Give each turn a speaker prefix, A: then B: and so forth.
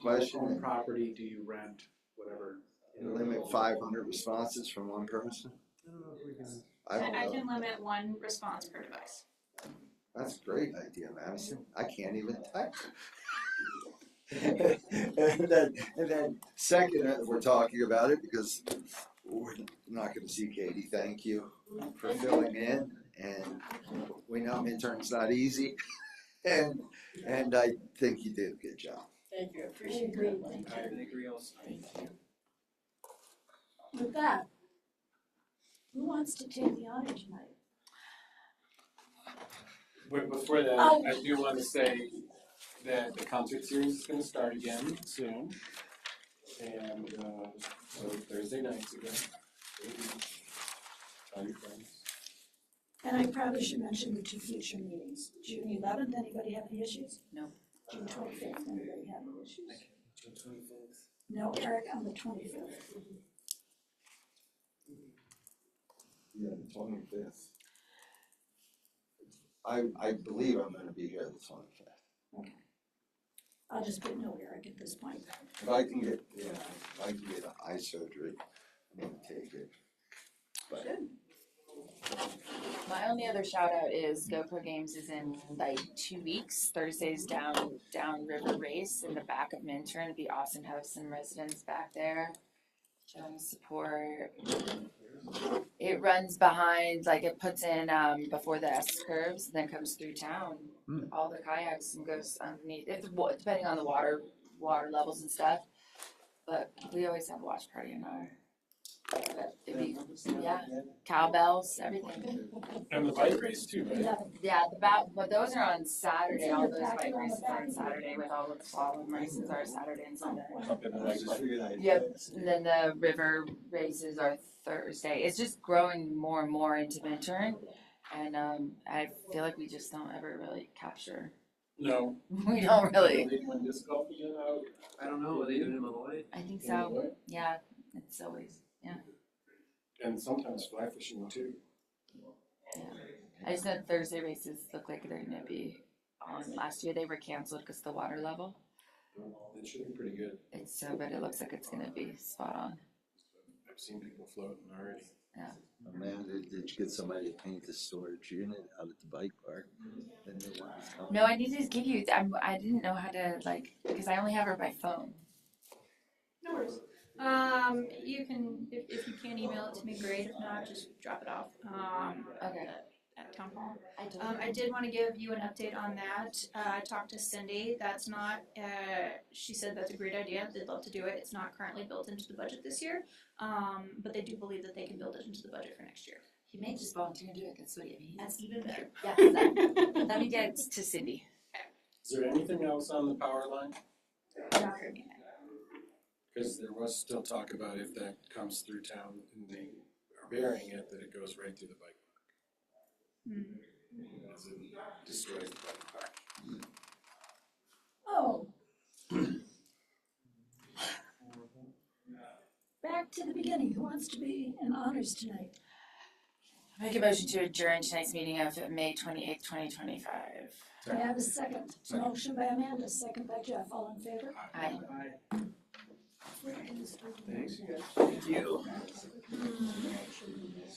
A: question,
B: Own property, do you rent, whatever.
A: and limit five hundred responses from one person? I don't
C: I, I
A: know,
C: can limit one response per device.
A: that's a great idea, Madison, I can't even type. And then, and then second, uh, we're talking about it because we're not gonna see Katie, thank you for filling in, and we know intern's not easy. And, and I think you did a good job.
D: Thank you, I appreciate it.
B: I agree also.
D: With that, who wants to take the honor tonight?
E: But before that,
D: Oh.
E: I do wanna say that the concert series is gonna start again soon. And uh so Thursday nights again. Tell your friends.
D: And I probably should mention the two future meetings, June eleventh, anybody have any issues?
F: No.
D: June twenty-fifth, anybody have any issues? No, Eric, on the twenty-fifth.
A: Yeah, the twenty fifth. I I believe I'm gonna be here the twenty fifth,
D: I'll just put no Eric at this point.
A: if I can get, yeah, if I can get eye surgery, I'm gonna take it.
F: My only other shout out is GoPro Games is in like two weeks. Thursday's down down river race in the back of Minturn. It'd be awesome to have some residents back there. Showing support. It runs behind, like it puts in um before the S curves, then comes through town.
B: Hmm.
F: All the kayaks and goes underneath. It's wa- depending on the water water levels and stuff. But we always have a watch party in our. But it'd be, yeah, cowbells, everything.
E: And the bike race too, right?
D: Eleven,
F: Yeah, the bat, but those are on Saturday, all those
D: Back
F: bike
D: around the
F: races are on
D: back.
F: Saturday with all of the slalom races are Saturday and
D: Oh,
F: Sunday.
E: Up in the bike park.
A: figured I'd.
F: Yep. And then the river races are Thursday. It's just growing more and more into Minturn. And um, I feel like we just don't ever really capture,
E: No.
F: we don't really,
E: They won disc golf again out
B: I don't know, they do it in Illinois.
F: I think
E: in the
F: so,
E: way.
F: yeah, it's always,
E: And sometimes fly fishing too.
F: I just know Thursday races look like they're gonna be on. Last year they were canceled because the water level.
E: It should be pretty good.
F: It's so, but it looks like it's gonna be spot on.
E: I've seen people floating already.
A: Amanda, did you get somebody to paint the storage unit out at the bike park? Then they want to come.
F: No, I need to give you. I'm, I didn't know how to like because I only have her by phone.
C: No worries. Um, you can, if, if you can email it to me, great, if not, just drop it off, um,
F: Okay.
C: at- at town hall.
F: I do.
C: Um, I did wanna give you an update on that, uh, I talked to Cindy, that's not, uh, she said that's a great idea, they'd love to do it, it's not currently built into the budget this year. Um, but they do believe that they can build it into the budget for next year.
F: He may just volunteer to do it. That's what he means.
C: That's even better.
F: Yeah. exactly. Let me get to Cindy.
E: Is there anything else on the power line?
C: Not hurting it.
E: Cause there was still talk about if that comes through town and they are burying it, that it goes right through the bike
C: Hmm.
E: park. As in destroys the bike park.
D: oh. Back to the beginning, who wants to be in honors tonight?
F: Make a motion to adjourn tonight's meeting of May twenty eighth, twenty twenty five.
D: May I have a second?
E: Second.
D: Motion by Amanda, second by Jeff, all in favor?
F: Aye.
B: Thanks.
D: Thanks.
B: Thank you.